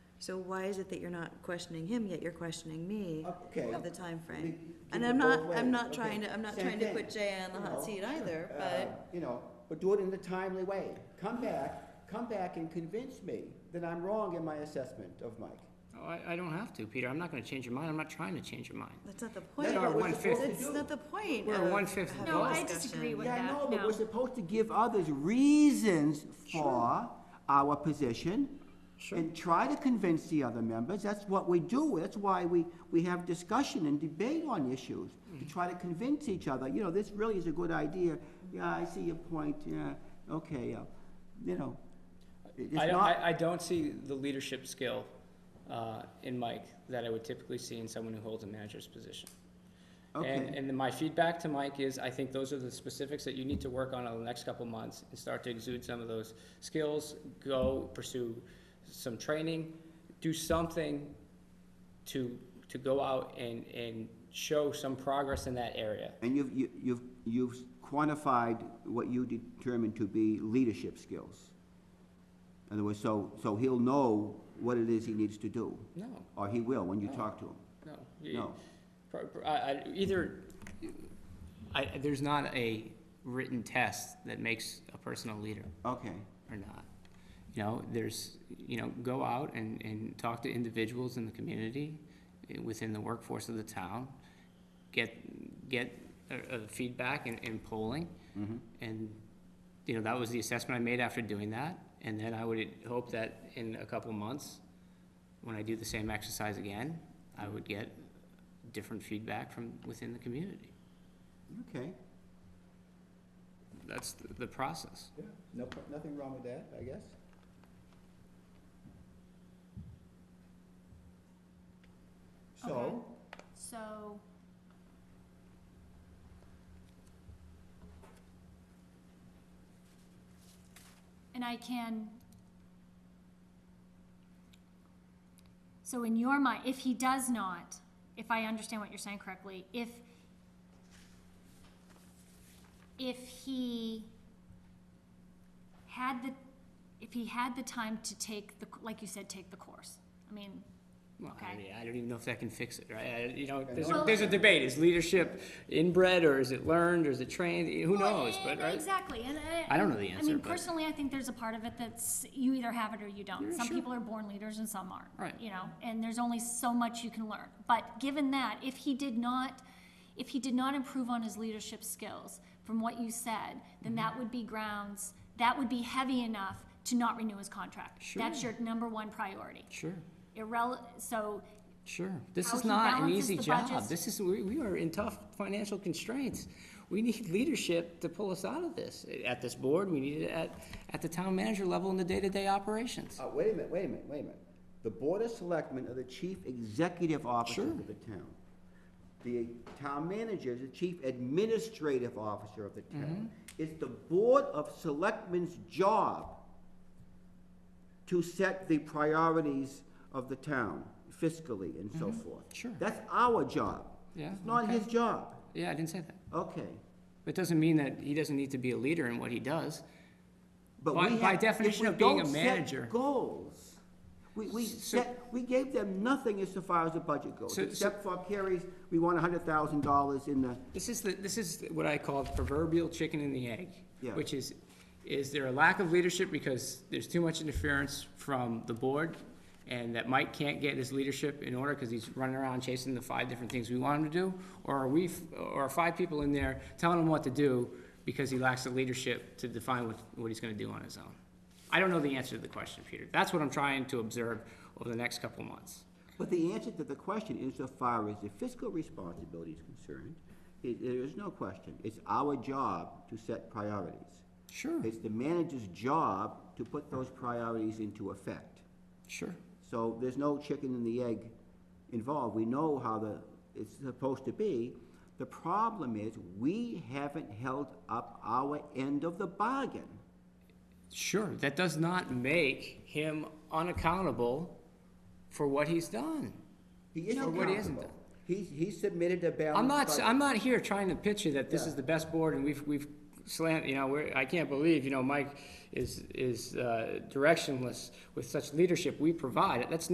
So why is it that you're not questioning him, yet you're questioning me Okay. of the time We frame? And can go I'm not, both I'm ways, not okay. trying to, I'm not Same trying to thing, put Jay on the you hot know, seat either, uh, but, You know, but do it in a timely way. Come back, come back and convince me that I'm wrong in my assessment of Mike. Oh, I, I don't have to, Peter. I'm not gonna change your mind. I'm not trying to change your mind. that's not the point. That's what our we're one-fifth. supposed to That's do. not the point We're of one-fifth having No, a I discussion. disagree with- Yeah, I that, know, but no. we're supposed to give others reasons for our position Sure. and try to convince the other members. That's what we do. That's why we, we have discussion and debate on issues, Mm. to try to convince each other, you know, this really is a good idea. Yeah, I see your point, yeah, okay, uh, you know. it- It's I don't, not, I, I don't see the leadership skill uh, in Mike that I would typically see in someone who holds a manager's position. And, okay, and then my feedback to Mike is, I think those are the specifics that you need to work on over the next couple months and start to exude some of those skills. Go pursue some training, do something to, to go out and, and show some progress in that area. and you've, you- you've, you've quantified what you determined to be leadership skills. In other words, so, so he'll know what it is he needs to do. No, Or he will when you talk to him. no. you- No. Pro- pro- I, I, either, I, there's not a written test that makes a person a leader Okay. or not. You know, there's, you know, go out and, and talk to individuals in the community, eh, within the workforce of the town, get, get, uh, uh, feedback and, and polling. Mm-hmm. And, you know, that was the assessment I made after doing that, and then I would hope that in a couple months, when I do the same exercise again, I would get different feedback from within the community. Okay. That's the, the process. Yeah. No, pro- nothing wrong with that, I guess. So, So. And I can. So in your mind, if he does not, if I understand what you're saying correctly, if. If he had the, if he had the time to take the, like you said, take the course, I mean, Well, I Okay. don't- I don't even know if that can fix it, right? I- You know, there's a, Well- there's a debate. Is leadership inbred or is it learned or is it trained? Who Well, knows, eh, but, right? Exactly, and I. I don't know the I answer, mean, but- personally, I think there's a part of it that's, you either have it or you don't. Yeah, Some sure. people are born leaders and some aren't. Right. You know, and there's only so much you can learn. But given that, if he did not, if he did not improve on his leadership skills from what you said, Mm-hmm. then that would be grounds, that would be heavy enough to not renew his contract. That's Sure. your number one priority. Sure, Irrele, so, sure. This How is he not an balances easy the job. budgets. This is, we, we are in tough financial constraints. We need leadership to pull us out of this. At this board, we need it at, at the town manager level in the day-to-day operations. uh, wait a minute, wait a minute, wait a minute. The Board of Selectmen are the chief executive officers Sure. of the town. The town manager is the chief administrative officer of the Mm-hmm. town. It's the Board of Selectmen's job to set the priorities of the town fiscally and so forth. Mm-hmm. Sure. That's our job. Yeah, It's not okay. his job. Yeah, I didn't say that. Okay. It doesn't mean that he doesn't need to be a leader in what he does. But By- we by have- if definition we of being a don't set manager. Goals. We, we So- set, we gave them nothing as to far as the budget goes, So- so- except for Carrie's, we want a hundred thousand dollars in the, This is the, this is what I call the proverbial chicken and the egg. Yeah. Which is, is there a lack of leadership because there's too much interference from the board? And that Mike can't get his leadership in order because he's running around chasing the five different things we want him to do? Or are we, f- or are five people in there telling him what to do because he lacks the leadership to define what, what he's gonna do on his own? I don't know the answer to the question, Peter. That's what I'm trying to observe over the next couple of months. but the answer to the question insofar as the fiscal responsibility is concerned, i there is no question. It's our job to set priorities. Sure, It's the manager's job to put those priorities into effect. sure. So there's no chicken and the egg involved. We know how the, it's supposed to be. The problem is, we haven't held up our end of the bargain. Sure, that does not make him unaccountable for what he's done. He is Or what he isn't. accountable. He's, he submitted a balanced I'm not, budget. I'm not here trying to picture that this Yeah. is the best board and we've, we've slant, you know, we're, I can't believe, you know, Mike is, is, uh, directionless with such leadership we provide. That's